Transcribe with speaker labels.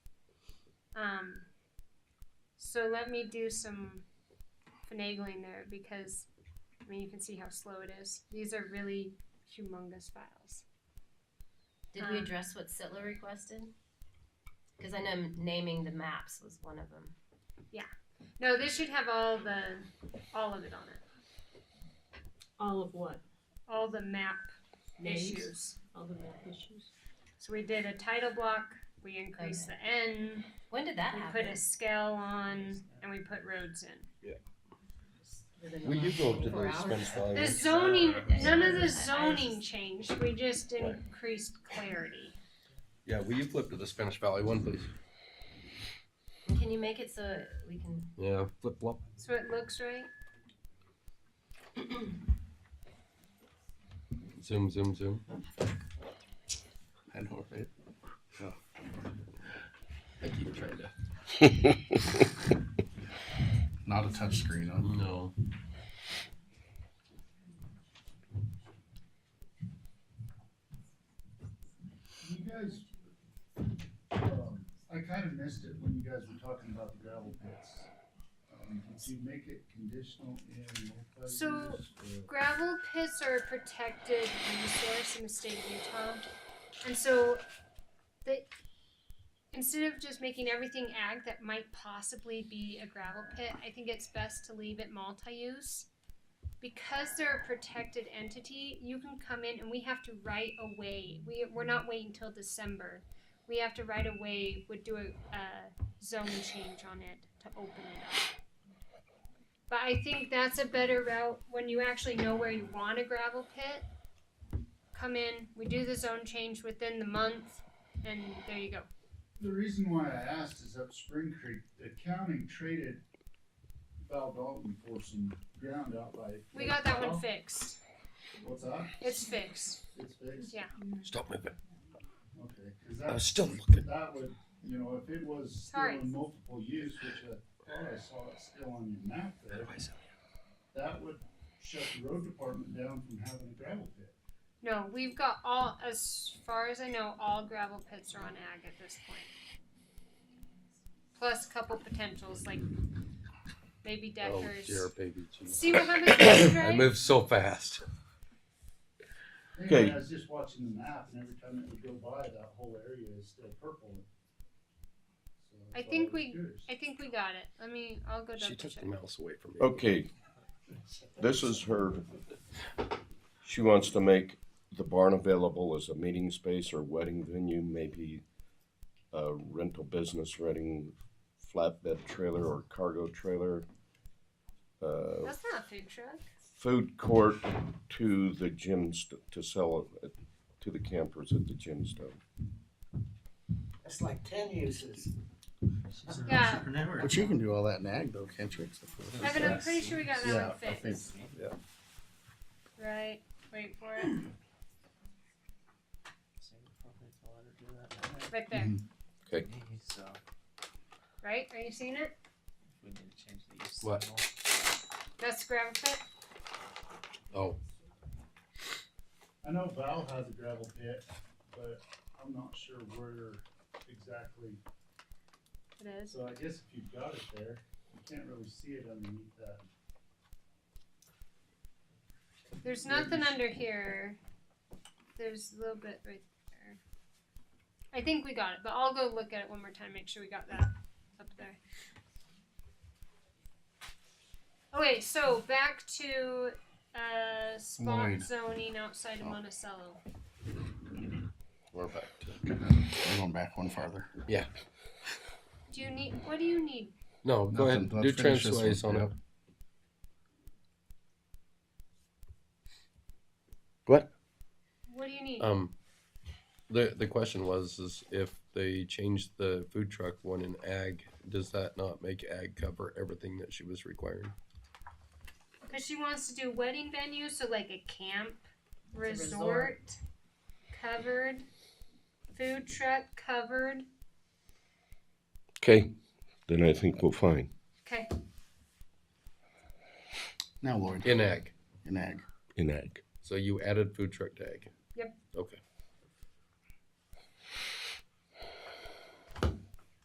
Speaker 1: Um, So let me do some finagling there because, I mean, you can see how slow it is. These are really humongous files.
Speaker 2: Did we
Speaker 1: Um,
Speaker 2: address what Sitler requested? Because I know naming the maps was one of them.
Speaker 1: No, this should have all the, all of it on it.
Speaker 3: All of what?
Speaker 1: All the map
Speaker 3: Names?
Speaker 1: issues.
Speaker 3: All the map issues?
Speaker 1: So we did a title block. We increased the N.
Speaker 2: When did that
Speaker 1: We
Speaker 2: happen?
Speaker 1: put a scale on, and we put roads in.
Speaker 2: Within the
Speaker 4: Will you
Speaker 2: last
Speaker 4: go to
Speaker 2: 24
Speaker 4: the
Speaker 2: hours?
Speaker 4: expense
Speaker 1: The
Speaker 4: values?
Speaker 1: zoning, none of
Speaker 2: I
Speaker 1: the
Speaker 2: just-
Speaker 1: zoning changed. We just increased clarity.
Speaker 4: Yeah, will you flip to the Spanish Valley one, please?
Speaker 2: Can you make it so we can?
Speaker 4: Yeah, flip flop.
Speaker 1: So it looks right.
Speaker 4: Zoom, zoom, zoom. I know, right? Oh. I keep trying to.
Speaker 5: Not a touchscreen, huh?
Speaker 4: No.
Speaker 6: You guys, um, I kind of missed it when you guys were talking about the gravel pits. Um, Did you make it conditional in multi-use?
Speaker 1: So-
Speaker 6: or-
Speaker 1: Gravel pits are a protected resource in the state of Utah. And so they instead of just making everything ag that might possibly be a gravel pit, I think it's best to leave it multi-use. Because they're a protected entity, you can come in and we have to right away. We we're not waiting till December. We have to right away would do a, a zone change on it to open it up. But I think that's a better route when you actually know where you want a gravel pit. Come in, we do the zone change within the month, and there you go.
Speaker 6: The reason why I asked is up Spring Creek, the county traded Val Dalton for some ground out by.
Speaker 1: We got that one fixed.
Speaker 6: What's that?
Speaker 1: It's fixed.
Speaker 6: It's fixed?
Speaker 1: Yeah.
Speaker 4: Stop moving.
Speaker 6: Okay, cause
Speaker 4: I was
Speaker 6: that,
Speaker 4: still looking.
Speaker 6: that would, you know, if it was still
Speaker 1: Sorry.
Speaker 6: in multiple use, which I thought I saw it still on your map there. that would shut the road department down from having a gravel pit.
Speaker 1: No, we've got all, as far as I know, all gravel pits are on ag at this point. Plus a couple potentials like maybe
Speaker 4: Oh, dear,
Speaker 1: Deckers.
Speaker 4: baby. Jesus.
Speaker 1: See what happens when you
Speaker 4: I
Speaker 1: drive?
Speaker 4: move so fast.
Speaker 6: Anyway,
Speaker 4: Okay.
Speaker 6: I was just watching the map and every time it would go by, that whole area is still purple. So
Speaker 1: I
Speaker 6: that's
Speaker 1: think
Speaker 6: why was
Speaker 1: we-
Speaker 6: curious.
Speaker 1: I think we got it. Let me, I'll go double
Speaker 4: She took
Speaker 1: check.
Speaker 4: the mouse away from me.
Speaker 7: Okay, this is her, she wants to make the barn available as a meeting space or wedding venue, maybe a rental business, renting flatbed trailer or cargo trailer. Uh,
Speaker 1: That's not a food truck.
Speaker 7: food court to the gym, st- to sell it to the campers at the gym store.
Speaker 8: That's like ten uses.
Speaker 1: Yeah.
Speaker 5: But you can do all that in ag though, can't you? Except for the-
Speaker 1: Evan, I'm pretty sure we got that
Speaker 5: Yeah,
Speaker 1: one
Speaker 5: I think,
Speaker 1: fixed.
Speaker 5: yeah.
Speaker 1: Right. Wait for it. Right there.
Speaker 8: So,
Speaker 1: Right? Are you seeing it?
Speaker 8: we need to change the use.
Speaker 4: What?
Speaker 8: symbol.
Speaker 1: That's gravel pit.
Speaker 4: Oh,
Speaker 6: I know Val has a gravel pit, but I'm not sure where exactly,
Speaker 1: It is.
Speaker 6: so I guess if you've got it there, you can't really see it underneath that.
Speaker 1: There's nothing under here. There's a little bit right there. I think we got it, but I'll go look at it one more time, make sure we got that up there. Okay, so back to uh, spot
Speaker 5: Lloyd.
Speaker 1: zoning outside of Monticello.
Speaker 4: Oh. we're back to.
Speaker 5: We're going back one farther.
Speaker 1: Do you need? What do you need?
Speaker 4: No, go
Speaker 5: Nothing.
Speaker 4: ahead.
Speaker 5: Let's
Speaker 4: Do
Speaker 5: finish this
Speaker 4: translates
Speaker 5: one.
Speaker 4: on it.
Speaker 5: Yep.
Speaker 1: What do you need?
Speaker 4: Um, the the question was is if they changed the food truck one in ag, does that not make ag cover everything that she was requiring?
Speaker 1: Because she wants to do wedding venues, so like a camp,
Speaker 8: It's a
Speaker 1: resort,
Speaker 8: resort.
Speaker 1: covered, food truck covered.
Speaker 7: Okay, then I think we'll find.
Speaker 1: Okay,
Speaker 5: Now Lloyd,
Speaker 4: In ag.
Speaker 5: in ag.
Speaker 7: in ag.
Speaker 4: So you added food truck to ag.
Speaker 1: Yep.
Speaker 4: Okay.